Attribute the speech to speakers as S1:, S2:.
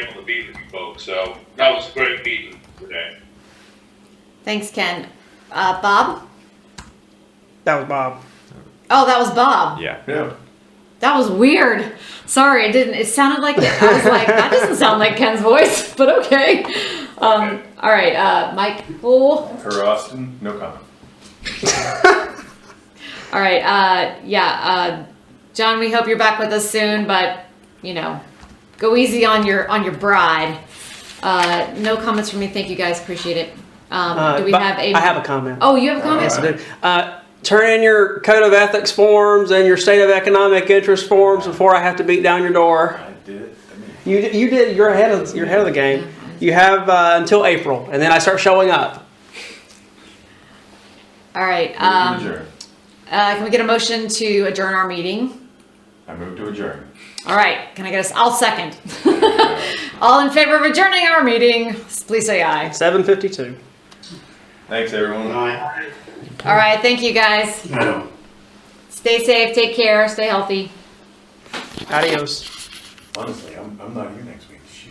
S1: able to be with you folks, so that was a great meeting today.
S2: Thanks, Ken. Uh, Bob?
S3: That was Bob.
S2: Oh, that was Bob.
S4: Yeah.
S5: Yeah.
S2: That was weird. Sorry, it didn't. It sounded like I was like that doesn't sound like Ken's voice, but okay. Um, all right, uh, Mike. oh, Cool.
S5: For Austin, no comment.
S2: All right. Uh, yeah, uh, John. We hope you're back with us soon, but you know, go easy on your on your bride. Uh, no comments from me. Thank you guys. Appreciate it. Um,
S3: Uh,
S2: do we
S3: but
S2: have a?
S3: I have a comment.
S2: Oh, you have a comment.
S3: Yes, I do. Uh, turn in your code of ethics forms and your state of economic interest forms before I have to beat down your door.
S5: I did it. I mean,
S3: You, you did. You're ahead of you're ahead of the game. You have uh, until April, and then I start showing up.
S2: All right.
S5: move
S2: Um,
S5: to adjourn.
S2: Uh, can we get a motion to adjourn our meeting?
S5: I moved to adjourn.
S2: All right, can I get a, I'll second. All in favor of adjourning our meeting, please say aye.
S3: Seven fifty two.
S5: Thanks, everyone.
S2: All right, thank you guys. Stay safe, take care, stay healthy.
S3: Adios.
S5: Honestly, I'm, I'm not here next week. Shoot.